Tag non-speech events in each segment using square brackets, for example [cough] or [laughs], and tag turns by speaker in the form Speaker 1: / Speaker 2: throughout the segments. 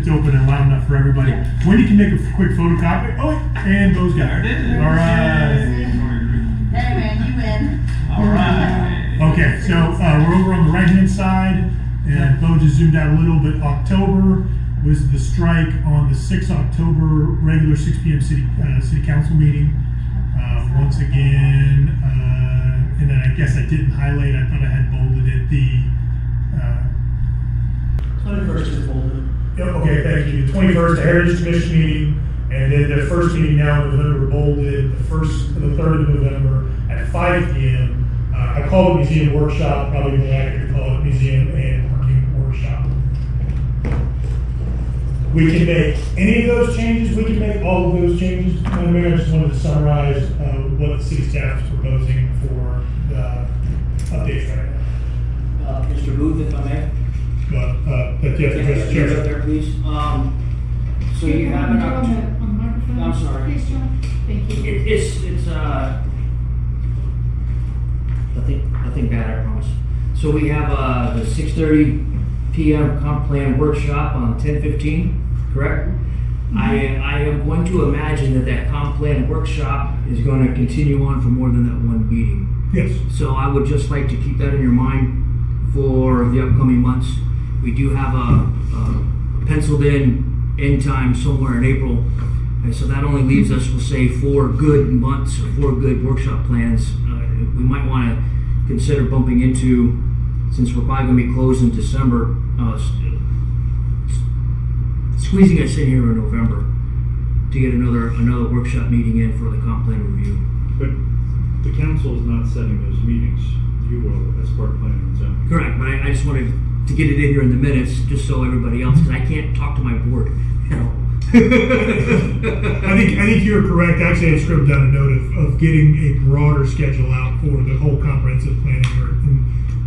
Speaker 1: open and loud enough for everybody.
Speaker 2: Yeah.
Speaker 1: Wendy can make a quick photocopy. Oh, and those
Speaker 2: There
Speaker 1: guys.
Speaker 2: it is.
Speaker 1: All right.
Speaker 2: Yay.
Speaker 3: Hey man, you win.
Speaker 2: All right.
Speaker 1: Okay, so uh, we're over on the right hand side, and Bo just zoomed out a little bit. October was the strike on the 6th October regular 6 p.m. city uh, city council meeting. Uh, once again, uh, and then I guess I didn't highlight. I thought I had bolded it. uh, The
Speaker 4: Twenty-first is folded.
Speaker 1: uh, okay, thank you. The 21st the Heritage Commission meeting, and then the first meeting now in November bolded the first, the third of November at 5 p.m. Uh, I call it museum workshop. Probably more accurate to call it museum and parking workshop. We can make any of those changes, we can make all of those changes. Madam Mayor, I just wanted to summarize uh, what the city staff is proposing for the updates right now.
Speaker 4: Uh, Mr. Booth, if I may.
Speaker 1: But, uh, but you have to address the
Speaker 4: Can I get
Speaker 1: chair.
Speaker 4: up there, please? Um, so you have an
Speaker 5: On the-
Speaker 4: opportunity.
Speaker 5: on the microphone.
Speaker 4: I'm sorry.
Speaker 5: Please, John. Thank you.
Speaker 4: It, it's it's uh nothing nothing bad, I promise. So we have uh the six thirty p.m. comp plan workshop on ten fifteen, correct? I I am going to imagine that that comp plan workshop is going to continue on for more than that one meeting.
Speaker 1: Yes.
Speaker 4: So I would just like to keep that in your mind for the upcoming months. We do have a, a penciled in end time somewhere in April. And so that only leaves us, we'll say, four good months or four good workshop plans. Uh, we might want to consider bumping into, since we're probably going to be closed in December, uh, s- s- squeezing us in here in November to get another another workshop meeting in for the comp plan review.
Speaker 6: But the council is not setting those meetings. You will, as part of planning and zoning.
Speaker 4: Correct, but I, I just wanted to get it in here in the minutes, just so everybody else, because I can't talk to my board. You
Speaker 1: [laughs] I think I think you're correct. Actually, I scribbled down a note of, of getting a broader schedule out for the whole comprehensive planning or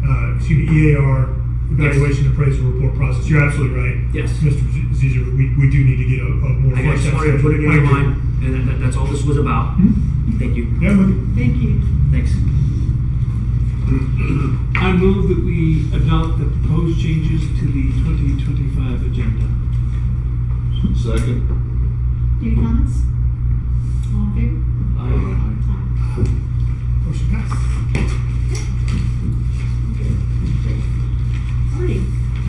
Speaker 1: uh, excuse me EAR evaluation appraisal report process. You're absolutely right.
Speaker 4: Yes.
Speaker 1: Mr. Zizer, we, we do need to get a, a more.
Speaker 4: I just
Speaker 1: fleshed out
Speaker 4: wanted to put it in your
Speaker 1: schedule. I agree.
Speaker 4: mind, and that- that, that's all this was about. Thank you.
Speaker 1: Yeah, I'm with you.
Speaker 5: Thank you.
Speaker 4: Thanks.
Speaker 7: I move that we adopt the proposed changes to the 2025 agenda.
Speaker 6: Second.
Speaker 5: Any comments? All in favor?
Speaker 7: Aye.
Speaker 5: Aye.
Speaker 1: Motion Oh, passed.
Speaker 5: Alrighty,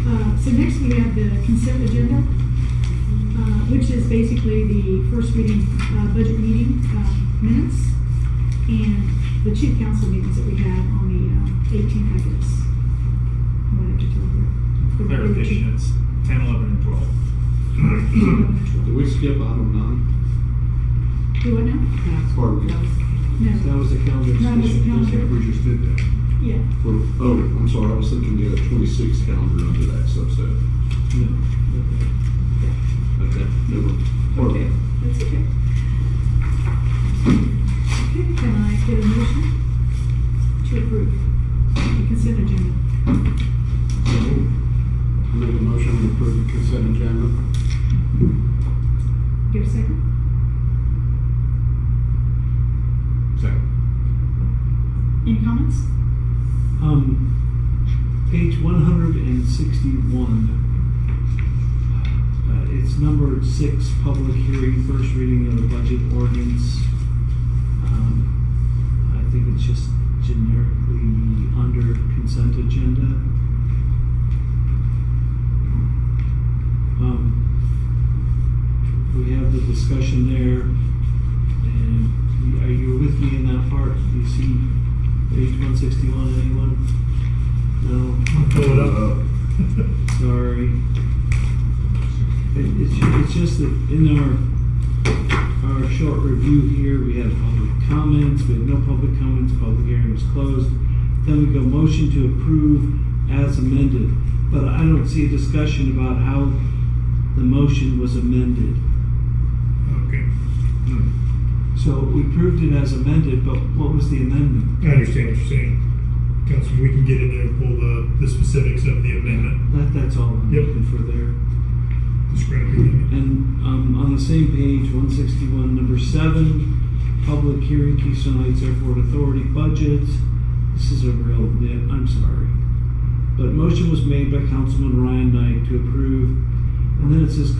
Speaker 5: Uh, so next we have the consent agenda, uh, which is basically the first reading, uh, budget meeting, uh, minutes and the two council meetings that we had on the, uh, eighteen, I guess. What I have to tell you. The- the-
Speaker 7: Clarification, it's 10, 11, and 12.
Speaker 6: Did we skip item
Speaker 5: Do what now?
Speaker 6: nine? Pardon me.
Speaker 5: No,
Speaker 6: That was the calendar
Speaker 5: That was the
Speaker 6: discussion.
Speaker 5: calendar.
Speaker 6: We just did that.
Speaker 5: yeah.
Speaker 6: For- Oh, I'm sorry, I was thinking you had a twenty-six calendar under that subset. No. Okay, never. pardon me.
Speaker 5: That's okay. Okay, can I get a motion to approve the consent agenda?
Speaker 6: I make a motion to approve the consent agenda.
Speaker 5: Get a second?
Speaker 6: Second.
Speaker 5: Any comments?
Speaker 7: Um, page one hundred and sixty-one. Uh, it's numbered six, public hearing, first reading of the budget ordinance. Um, I think it's just generically under consent agenda. Um, we have the discussion there, and are you with me in that part? Do you see Page one sixty-one, anyone? No,
Speaker 1: Pull it up.
Speaker 7: sorry. It, it's, ju- it's just that in our, our short review here, we had public comments, we had no public comments, public hearing was closed. Then we go motion to approve as amended, but I don't see a discussion about how the motion was amended.
Speaker 1: [laughs] Okay, Hmm.
Speaker 7: So we approved it as amended, but what was the amendment?
Speaker 1: I understand what you're saying, Councilman. We can get in there and pull the, the specifics of the amendment,
Speaker 7: That, that's all I'm
Speaker 1: Yep.
Speaker 7: looking for there.
Speaker 1: describe the amendment.
Speaker 7: And um, on the same page, 161, number seven, public hearing, Keystone Heights Airport Authority budget. This is a real nit, I'm sorry. But motion was made by Councilman Ryan Knight to approve, and then it says